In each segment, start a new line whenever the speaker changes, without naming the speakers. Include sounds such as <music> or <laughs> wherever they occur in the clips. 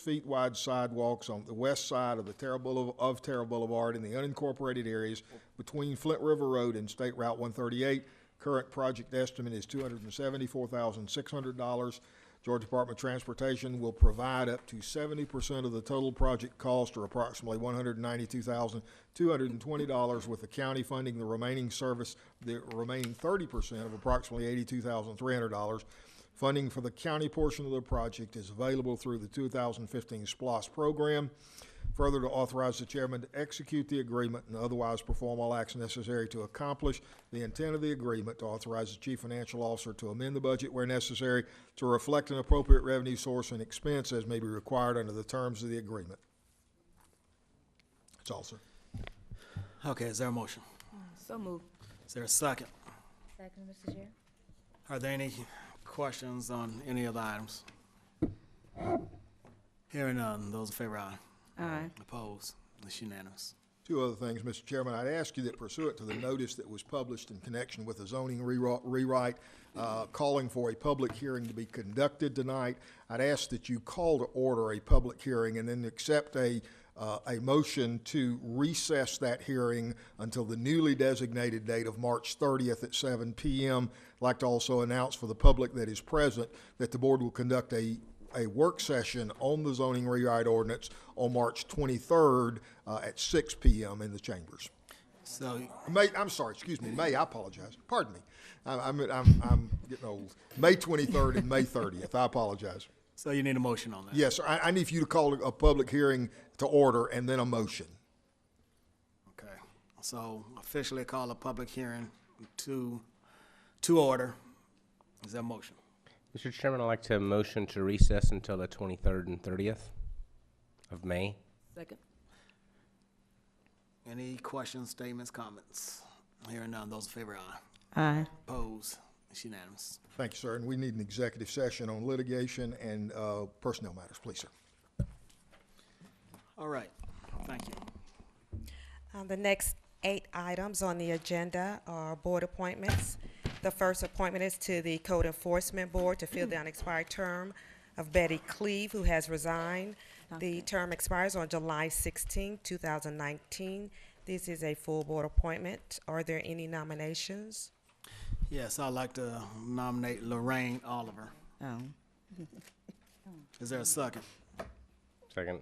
feet wide sidewalks on the west side of the Terra Boulevard, of Terra Boulevard in the unincorporated areas between Flint River Road and State Route one thirty-eight. Current project estimate is two hundred and seventy-four thousand, six hundred dollars. Georgia Department of Transportation will provide up to seventy percent of the total project cost, or approximately one hundred and ninety-two thousand, two hundred and twenty dollars, with the county funding the remaining service, the remaining thirty percent of approximately eighty-two thousand, three hundred dollars. Funding for the county portion of the project is available through the 2015 SPOS program. Further, to authorize the chairman to execute the agreement and otherwise perform all acts necessary to accomplish the intent of the agreement, to authorize the chief financial officer to amend the budget where necessary to reflect an appropriate revenue source and expense as may be required under the terms of the agreement. That's all, sir.
Okay, is there a motion?
So moved.
Is there a second?
Second, Mr. Chair.
Are there any questions on any of the items? Hearing none, those in favor, aye.
Aye.
Opposed, it's unanimous.
Two other things, Mr. Chairman. I'd ask you that pursuant to the notice that was published in connection with the zoning rewri- rewrite, uh, calling for a public hearing to be conducted tonight, I'd ask that you call to order a public hearing and then accept a, uh, a motion to recess that hearing until the newly designated date of March 30th at 7 PM. I'd Like to also announce for the public that is present that the board will conduct a a work session on the zoning rewrite ordinance on March 23rd uh, at 6 PM in the chambers.
So,
May, I'm sorry, excuse me, May, I apologize. Pardon me. I- I'm, I'm, I'm getting old. May 23rd and May 30th, I apologize.
so you need a motion on that?
Yes, sir, I, I need for you to call a public hearing to order and then a motion.
Okay, so officially call a public hearing to, to order. Is there a motion?
Mr. Chairman, I'd like to motion to recess until the 23rd and 30th of May.
Second.
Any questions, statements, comments? Hearing none, those in favor, aye.
Aye.
Opposed, it's unanimous.
Thank you, sir, and we need an executive session on litigation and uh, personnel matters, please, sir.
All right, thank you.
Um, The next eight items on the agenda are board appointments. The first appointment is to the Code Enforcement Board to fill the unexpired term of Betty Cleve, who has resigned. The term expires on July 16, 2019. This is a full board appointment. Are there any nominations?
Yes, I'd like to nominate Lorraine Oliver.
Oh.
<laughs> Is there a second?
Second.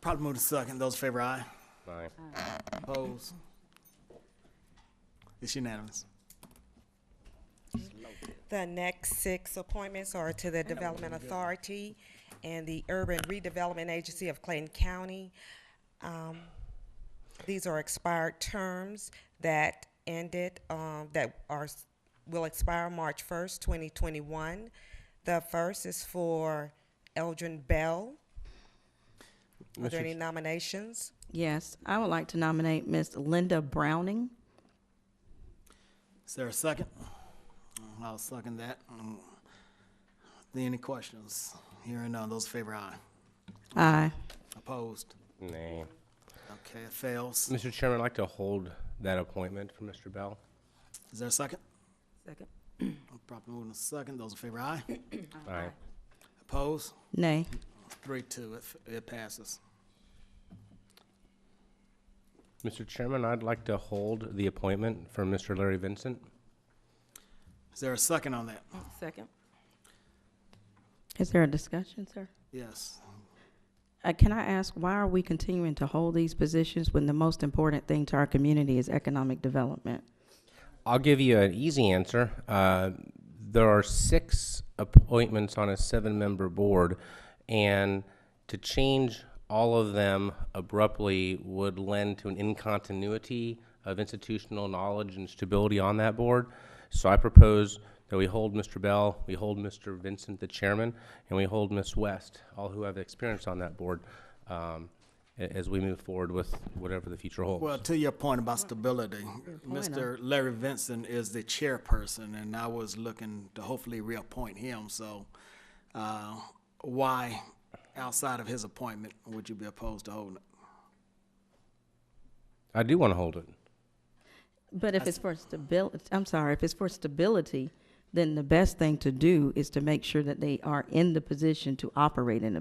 Probably move to second. Those in favor, aye.
Aye.
Opposed? It's unanimous.
The next six appointments are to the Development Authority and the Urban Redevelopment Agency of Clayton County. Um, These are expired terms that ended, um, that are, will expire March first, twenty twenty-one. The first is for Eldrin Bell. Are there any nominations?
Yes, I would like to nominate Miss Linda Browning.
Is there a second? I'll second that. Any questions? Hearing none. Those in favor, aye.
Aye.
Opposed?
Nay.
Okay, it fails.
Mr. Chairman, I'd like to hold that appointment for Mr. Bell.
Is there a second?
Second.
Probably move to second. Those in favor, aye.
Aye.
Opposed?
Nay.
Three, two. It, it passes.
Mr. Chairman, I'd like to hold the appointment for Mr. Larry Vincent.
Is there a second on that?
Second. Is there a discussion, sir?
Yes.
Uh, can I ask, why are we continuing to hold these positions when the most important thing to our community is economic development?
I'll give you an easy answer. Uh, there are six appointments on a seven member board, and to change all of them abruptly would lend to an incontinuity of institutional knowledge and stability on that board. So I propose that we hold Mr. Bell, we hold Mr. Vincent, the chairman, and we hold Ms. West, all who have experience on that board, um, a- as we move forward with whatever the future holds.
Well, to your point about stability, Mr. Larry Vincent is the chairperson, and I was looking to hopefully reappoint him, so, uh, why, outside of his appointment, would you be opposed to holding it?
I do want to hold it.
But if it's for stability, I'm sorry, if it's for stability, then the best thing to do is to make sure that they are in the position to operate in the